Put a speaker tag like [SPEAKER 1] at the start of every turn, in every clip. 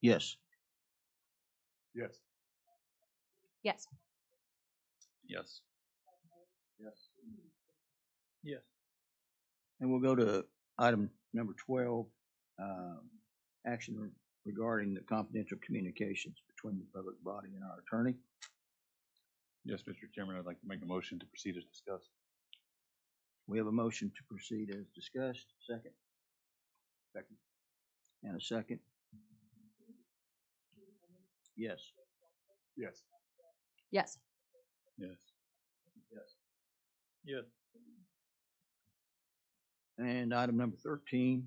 [SPEAKER 1] Yes.
[SPEAKER 2] Yes.
[SPEAKER 3] Yes.
[SPEAKER 2] Yes. Yes.
[SPEAKER 1] And we'll go to item number twelve, um, action regarding the confidential communications between the public body and our attorney.
[SPEAKER 2] Yes, Mr. Chairman, I'd like to make a motion to proceed as discussed.
[SPEAKER 1] We have a motion to proceed as discussed. Second? Second. And a second? Yes.
[SPEAKER 2] Yes.
[SPEAKER 3] Yes.
[SPEAKER 2] Yes. Yes. Yes.
[SPEAKER 1] And item number thirteen,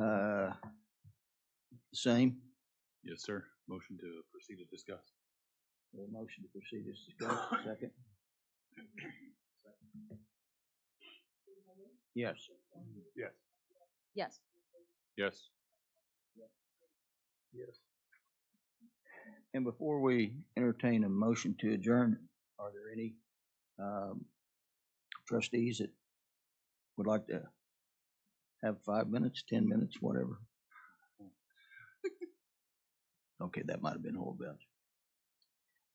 [SPEAKER 1] uh, same.
[SPEAKER 2] Yes, sir. Motion to proceed as discussed.
[SPEAKER 1] We have A motion to proceed as discussed. Second? Yes.
[SPEAKER 2] Yes.
[SPEAKER 3] Yes.
[SPEAKER 2] Yes.
[SPEAKER 1] Yes. And before we entertain a motion to adjourn, are there any um, trustees that would like to have five minutes, ten minutes, whatever? Okay, that might have been Holdbound.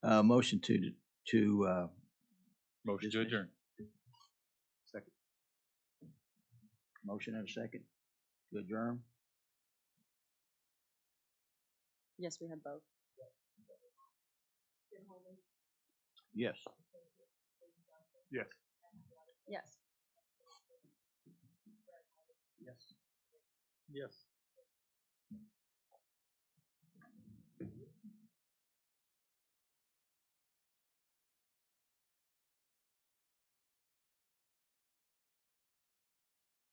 [SPEAKER 1] Uh, motion to, to, uh,
[SPEAKER 2] Motion to
[SPEAKER 1] Dismiss.
[SPEAKER 2] adjourn.
[SPEAKER 1] Second. Motion and a second to adjourn?
[SPEAKER 3] Yes, we have both.
[SPEAKER 1] Yes.
[SPEAKER 2] Yes.
[SPEAKER 3] Yes.
[SPEAKER 1] Yes. Yes.